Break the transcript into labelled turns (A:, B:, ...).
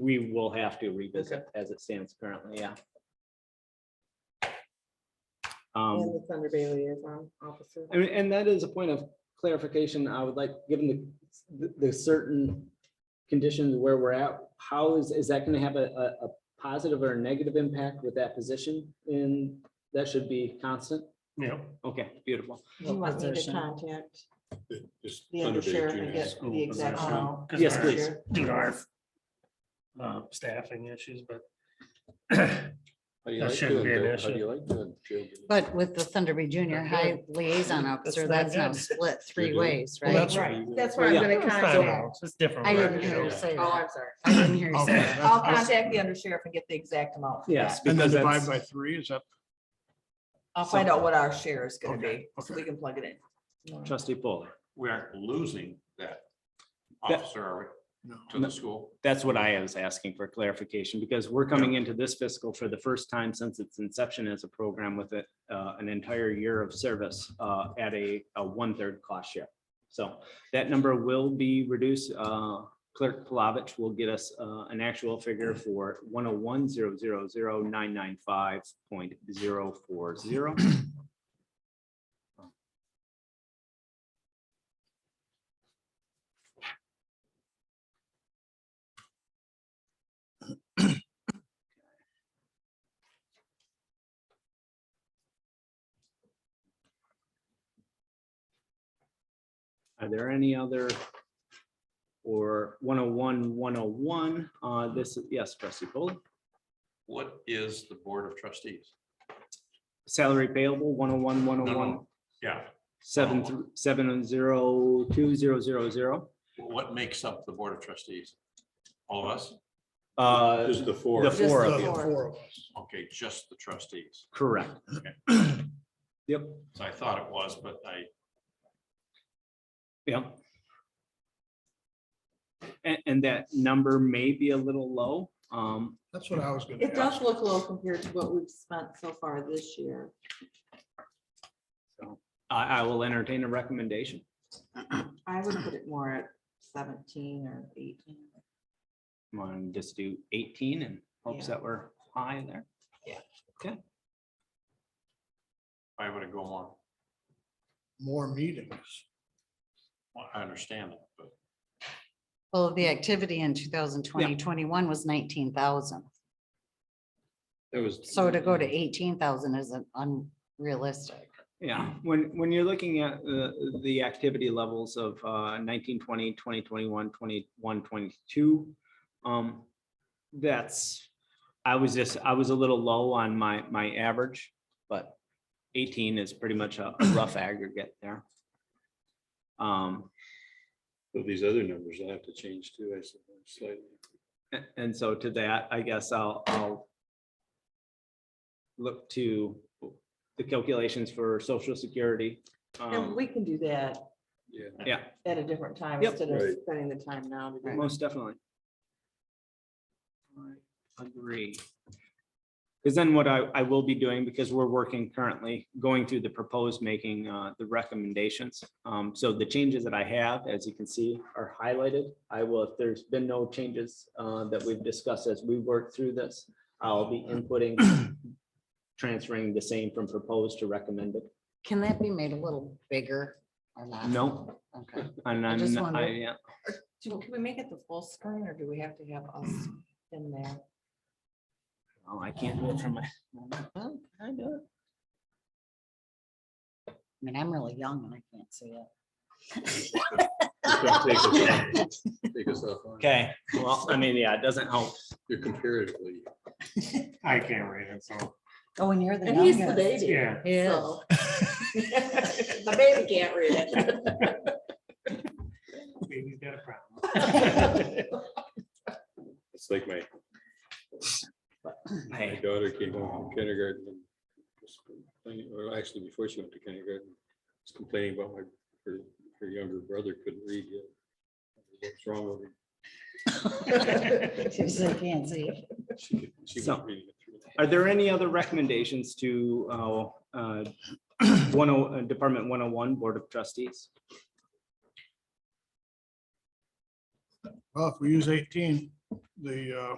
A: we will have to revisit as it stands currently, yeah. Um,
B: And the Thunder Bay liaison officer.
A: I mean, Um, and that is a point of clarification. I would like, given the- the, the certain conditions where we're at, how is, is that going to have a, a, a positive or a negative impact with that position? And that should be constant?
C: Yep.
A: Okay, beautiful.
B: You want me to contact
D: Just
B: the
D: Thunder Bay
B: undersheriff
D: Junior
B: and
D: High
B: get
C: school
B: the exact.
C: position.
B: amount?
C: Because
A: Yes,
C: our-
A: please.
C: Due to our uh, staffing issues, but
D: How do you
C: That
D: like
C: shouldn't
D: doing
C: be an
D: that? How do
C: issue.
D: you like doing children?
E: But with the Thunder Bay Junior
C: Not
E: High
C: good.
E: Liaison
C: That's
E: Officer,
C: not
E: that's now
C: good.
E: split three
D: good.
E: ways,
C: Well,
E: right?
C: that's-
B: Right, that's where I'm
A: Yeah.
B: gonna
C: It's not
B: contact.
C: ours, It's different.
E: I
C: right?
E: didn't hear you say
B: Oh,
E: that.
B: I'm sorry.
E: I didn't hear you say
C: Okay.
E: that.
B: I'll contact the undersheriff and get the exact amount.
A: Yes.
C: And then
A: because
C: divide
A: that's-
C: by three is up.
B: I'll find out what our share is gonna be,
C: Okay,
B: so we
C: okay.
B: can plug it in.
A: Trustee Paul,
F: we aren't losing that
A: That-
F: officer are
C: No.
F: we, to the school.
A: that's what I was asking for clarification, because we're coming into this fiscal for the first time since its inception as a program with it, uh, an entire year of service, uh, at a, a one-third cost share. So that number will be reduced. Uh, Clerk Plavich will get us, uh, an actual figure for one oh one zero zero zero nine nine five point zero four zero. Are there any other? Or 101, 101, uh, this, yes, trustee Foley.
F: What is the Board of Trustees?
A: Salary payable 101, 101,
F: No, no. Yeah,
A: seven th- seven oh zero two zero zero zero.
F: what makes up the Board of Trustees? All of us?
A: Uh,
D: Just the four.
A: the four
C: The
A: of you,
C: four of us.
F: Okay, just the trustees.
A: correct. Yep,
F: So I thought it was, but I,
A: yep. And, and that number may be a little low. Um,
C: That's what I was gonna
B: It
C: ask.
B: does look low compared to what we've spent so far this year.
A: so I, I will entertain a recommendation.
B: I would put it more at seventeen or eighteen.
A: Want to just do eighteen and hopes
B: Yeah.
A: that we're high there.
F: I would go more.
C: More meetings.
F: Well, I understand that, but
E: Well, the activity in 2020, 21 was 19,000.
D: There was.
E: So to go to 18,000 isn't unrealistic.
A: Yeah, when, when you're looking at the, the activity levels of uh, 19, 20, 20, 21, 21, 22, um, that's, I was just, I was a little low on my, my average, but 18 is pretty much a a rough aggregate there. Um,
D: But These other numbers I have to change too, I suppose, slightly.
A: a- And so to that, I guess I'll, I'll look to the calculations for social security.
B: And
A: um,
B: we can do that
D: Yeah.
A: Yeah,
B: at a different time
A: Yep.
B: instead of
D: Right.
B: spending the time now to do it.
A: Most definitely. I Agree. Because then what I, I will be doing, because we're working currently, going through the proposed, making uh, the recommendations. Um, So the changes that I have, as you can see, are highlighted. I will, if there's been no changes uh, that we've discussed as we work through this, I'll be inputting, transferring the same from proposed to recommended.
E: Can that be made a little bigger or not?
A: No.
E: Okay.
A: And
E: I
A: I'm,
E: just
A: I,
E: wondered.
A: yeah,
B: Do- Can we make it the full screen or do we have to have us in there?
A: oh, I can't do it from my.
E: Well, I do it. I mean, I'm really young and I can't see it.
D: It's gonna Take us off- take us off. line.
A: Okay, well, I mean, yeah, it doesn't help.
D: You're comparatively.
C: I can't read it, so,
E: Oh, and you're the
B: And he's the
E: youngest.
B: baby.
C: yeah.
E: Yeah.
B: so. The baby can't read it.
C: Baby's got a problem.
D: It's like my, my
A: Hey,
D: daughter came home from kindergarten. and was complaining- Or actually, before she went to kindergarten, was complaining about my, her, her younger brother couldn't read yet. What's wrong with him?
E: She was like, can't see it.
D: She could, she was
A: So-
D: reading it through.
A: Are there any other recommendations to uh, uh, one oh, uh, Department one oh one, Board of Trustees?
C: Well, if we use eighteen,
G: the uh,